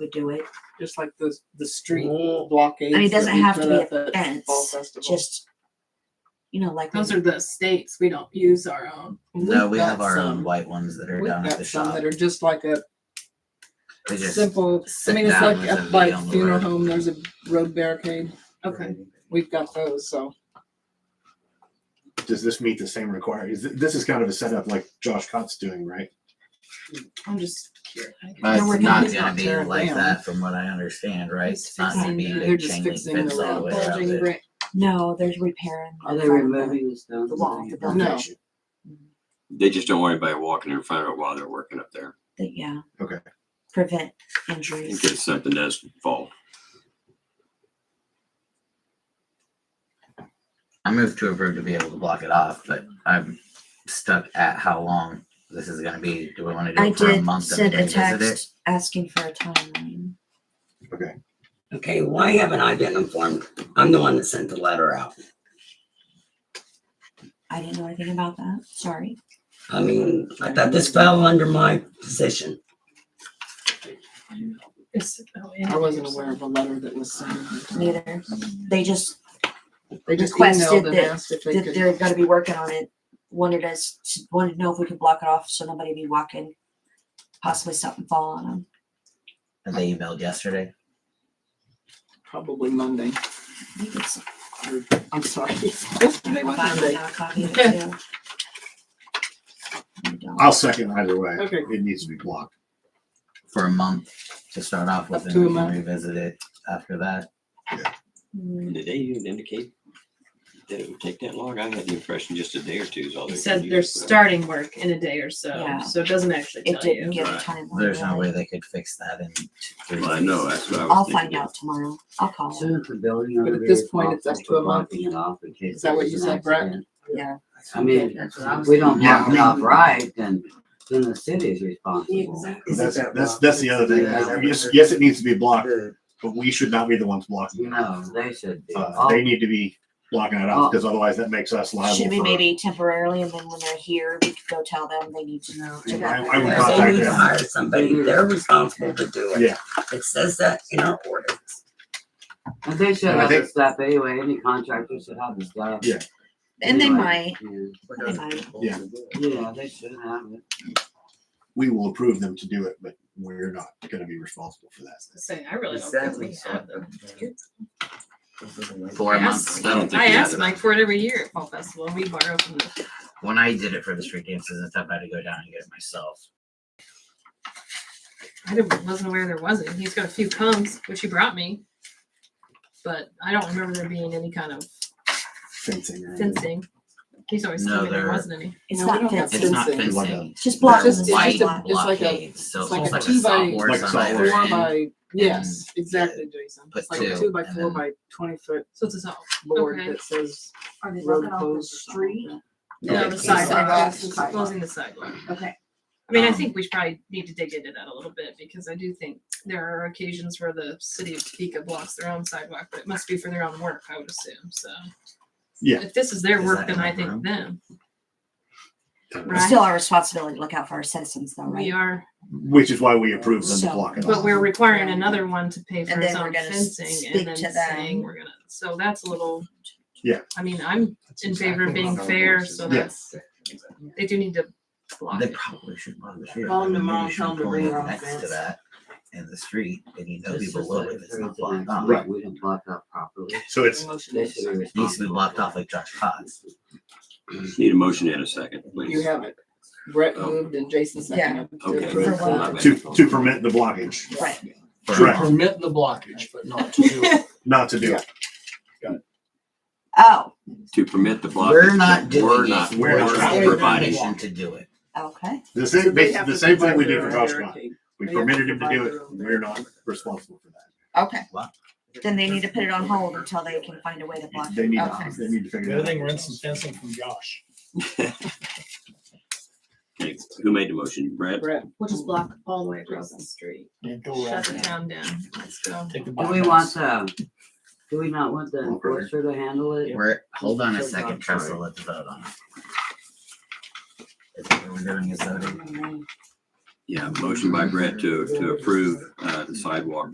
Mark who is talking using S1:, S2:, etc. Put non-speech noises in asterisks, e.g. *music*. S1: would do it.
S2: just like the the street blockades.
S1: I mean, it
S2: that
S1: doesn't
S2: we
S1: have to
S2: put
S1: be
S2: up
S1: a
S2: at Fall
S1: fence,
S2: Festival.
S1: just, you know, like.
S3: Those are the states. We don't use our own.
S4: No, we
S2: We've
S4: have
S2: got
S4: our own
S2: some-
S4: white ones that are
S2: We've
S4: down at the
S2: got some
S4: shop.
S2: that are just like a
S4: They just-
S2: simple. I
S4: sit
S2: mean, it's
S4: down
S2: like
S4: with
S2: up
S4: somebody
S2: by
S4: on the
S2: funeral
S4: road.
S2: home. There's a road barricade.
S3: Okay.
S2: We've got those. So
S5: Does this meet the same requirements? This is kind of a setup like Josh Cott's doing, right?
S3: I'm just curious.
S4: But
S2: No, we're
S4: it's
S2: not-
S4: not
S2: it's
S4: gonna
S2: not
S4: be
S2: tearing
S4: like
S2: down.
S4: that from what I understand, right?
S3: Just
S4: It's not gonna
S1: fixing
S4: be a
S1: the-
S2: they're
S4: big
S2: just
S4: chain link
S2: fixing
S4: fence
S2: the
S4: all the way around
S3: Bulging
S4: it.
S3: brick.
S1: No, there's repairing.
S6: Are
S1: the
S6: they
S1: front of the-
S6: removing the stones?
S1: the wall, the
S6: Well,
S1: building.
S2: no,
S7: They just don't want anybody walking in front of it while they're working up there
S1: the- Yeah.
S5: Okay.
S1: Prevent
S7: in
S1: injuries.
S7: case something does fall.
S4: I moved to approve to be able to block it off, but I'm stuck at how long this is gonna be. Do we wanna do
S1: I
S4: it for a
S1: did
S4: month and
S1: send a
S4: then revisit it?
S1: text asking for a timeline.
S6: Okay, why haven't I been informed? I'm the one that sent the letter out.
S1: I didn't know anything about that. Sorry.
S6: I mean, I thought this fell under my position.
S3: It's- oh, and-
S2: I wasn't aware of a letter that was sent.
S1: Neither. They just
S2: They just
S1: Requested
S2: emailed and
S1: that-
S2: asked if they
S1: that
S2: could.
S1: they're gonna be working on it. Wanted us, wanted to know if we could block it off so nobody be walking, possibly something fall on them.
S4: And they emailed yesterday.
S2: Probably
S1: I
S2: Monday.
S1: think it's-
S2: Or,
S1: *laughs*
S2: I'm sorry. Yesterday was
S1: I'll
S2: Monday.
S1: buy a copy of it,
S3: *laughs*
S1: too. I don't.
S5: I'll second either way.
S2: Okay.
S5: It needs to be blocked.
S4: for a month to start off with,
S2: Up
S4: and
S2: to
S4: we
S2: a
S4: can
S2: month.
S4: revisit it after that.
S1: Mm,
S7: Did they even indicate that it would take that long? I had the impression just a day or two is all they.
S3: It said
S7: could
S3: they're
S7: use, but-
S3: starting work in a day or
S1: Yeah.
S3: so, so it doesn't actually
S1: It
S3: tell
S1: didn't
S3: you.
S1: give a
S7: Right.
S1: timeline.
S4: There's no
S1: really.
S4: way they could fix that in. two, three
S7: Well, I know,
S4: days.
S7: that's what I was
S1: I'll
S7: thinking.
S1: find out tomorrow. I'll call them.
S6: Soon as the building
S2: But at this point, it's up to a month. Is that what you said, Brett?
S1: Yeah.
S6: I mean,
S3: That's what I was
S6: if we don't
S5: Yeah,
S6: block
S5: I
S6: it
S5: mean-
S6: off right, then, then the city is responsible.
S8: Exactly.
S5: That's, that's, that's the other thing.
S6: Yeah.
S5: Yes, yes, it needs to be blocked, but we should not be the ones blocking
S6: You
S5: it.
S6: know, they should be.
S5: Uh,
S8: Oh,
S5: they need to be blocking it off because otherwise that makes us liable
S1: Oh. Should we
S5: for.
S1: maybe temporarily and then when they're here, we could go tell them they need to know.
S5: I,
S1: to
S5: I
S1: go.
S5: would
S6: If
S5: contact
S6: They need to
S5: them.
S6: hire somebody, they're responsible to do it.
S5: Yeah.
S6: It says that in our ordinance.
S8: And they should
S5: And I
S8: have
S5: think-
S8: this stuff anyway, any contractor should have this stuff.
S5: Yeah.
S1: And they might,
S8: Anyway, yeah.
S1: they might.
S8: Yeah, they should have it.
S5: We will approve them to do it, but we're not gonna be responsible for that.
S3: Saying, I really don't think we have them.
S4: Four
S3: I
S4: months.
S3: asked-
S7: I don't think
S3: I
S7: we have
S3: asked
S7: them.
S3: Mike for it every year at Fall Festival. We borrow from the
S4: When I did it for the street dances and stuff, I had to go down and get it myself.
S3: I didn't, wasn't aware there wasn't. He's got a few cones, which he brought me, but I don't remember there being any kind of
S5: Fencing. or anything.
S3: fencing. He's always
S4: No,
S3: told me there
S4: there-
S3: wasn't any.
S1: It's
S2: No, we
S1: not
S2: don't have
S1: fenced.
S4: It's not
S2: Fencing.
S4: fencing.
S1: It's just
S4: They're
S1: blocks.
S2: It's just-
S1: It's
S2: it's
S1: just
S2: just a-
S1: a
S2: it's like a-
S4: blockades, so
S2: It's like
S4: it's
S2: a
S4: almost like a
S2: two by-
S4: stop
S5: Like
S4: horse
S5: a
S4: on
S5: stop
S4: either
S2: Four
S4: end.
S2: by, yes, exactly, Jason.
S4: Mm. put
S2: It's like a
S4: two,
S2: two by
S4: and
S2: four
S4: then-
S2: by twenty foot
S3: So it's a,
S2: board
S3: Okay.
S2: that says
S8: Are they
S2: road closed street.
S3: no,
S6: Yeah.
S3: the sidewalk,
S8: Sidewalks.
S3: closing the sidewalk.
S8: Okay.
S3: I mean, I
S4: Um,
S3: think we should probably need to dig into that a little bit because I do think there are occasions where the city of Topeka blocks their own sidewalk, but it must be for their own work, I would assume, so.
S5: Yeah.
S3: If this is their
S4: Is
S3: work,
S4: that
S3: then
S4: in
S3: I
S4: the
S3: think
S4: room?
S3: them.
S1: It's
S3: Right?
S1: still our responsibility to look out for our citizens though,
S3: We
S1: right?
S3: are,
S5: Which is why we approve them to
S1: So-
S5: block it
S3: But
S5: off.
S3: we're requiring
S1: Yeah.
S3: another one to pay for
S1: And
S3: its
S1: then we're
S3: own
S1: gonna s-
S3: fencing
S1: speak
S3: and then
S1: to
S3: saying
S1: them.
S3: we're gonna, so that's a little.
S5: Yeah.
S3: I mean, I'm in favor of being fair, so
S5: Yeah.
S3: that's, they do need to block
S4: They
S3: it.
S4: probably should block the street.
S8: Call
S4: I mean, maybe
S8: them tomorrow,
S4: should
S8: tell them to
S4: pull
S8: bring
S4: in
S8: their own
S4: Next to
S8: fence.
S4: that, in the street, and you know
S8: It's
S4: people
S8: just
S4: live
S8: like
S4: it, it's
S8: through
S4: not
S8: the
S4: blocked
S8: next
S4: off.
S5: Right.
S8: week, We didn't block up properly.
S5: So it's,
S2: Motion
S8: They
S2: is-
S8: should be
S4: It Needs to be
S8: responsible.
S4: blocked off like Josh Potts.
S7: Need a motion and a second,
S2: You
S7: please.
S2: have it. Brett
S4: Oh.
S2: moved and Jason seconded. to
S7: Okay.
S2: approve
S1: For what?
S2: that.
S5: to, to permit the blockage,
S1: Right.
S4: for a
S5: Correct.
S4: month.
S9: permit the blockage, but not to do it.
S5: not to do it.
S1: Oh,
S7: To permit the block.
S4: We're not doing
S7: We're
S4: it.
S7: not,
S5: We're
S7: we're
S5: not
S7: not
S5: doing it.
S7: providing.
S4: permission to do it.
S1: okay.
S5: The
S2: So
S5: same,
S2: they
S5: basi-
S2: have
S5: the
S2: to
S5: same thing we
S2: provide
S5: did
S2: their
S5: for
S2: own
S5: Josh Cotton.
S2: barricade.
S5: We
S2: They have to
S5: permitted him to
S2: provide
S5: do
S2: their
S5: it.
S2: own
S5: We're not responsible for that.
S1: Okay.
S4: What?
S1: Then they need to put it on hold until they can find a way to block
S5: They
S1: it.
S5: need,
S1: Okay.
S5: they need to figure
S9: Good
S5: it
S9: thing
S5: out.
S9: we're in some fencing from Josh.
S7: *laughs* Okay, Who made the motion? Brett?
S2: Brett.
S3: We'll just block all the way across the street.
S9: Yeah, go
S3: Shut
S9: around.
S3: the town down. Let's go.
S9: Take the
S6: Do we
S9: bypass.
S6: want the, do we not want the enforcer to handle it?
S4: We're, hold on a
S6: Just
S4: second,
S6: block
S4: Tressa,
S6: it.
S4: let's vote on it. Is that what we're doing is voting?
S7: Yeah, motion by Brett to, to approve, uh, the sidewalk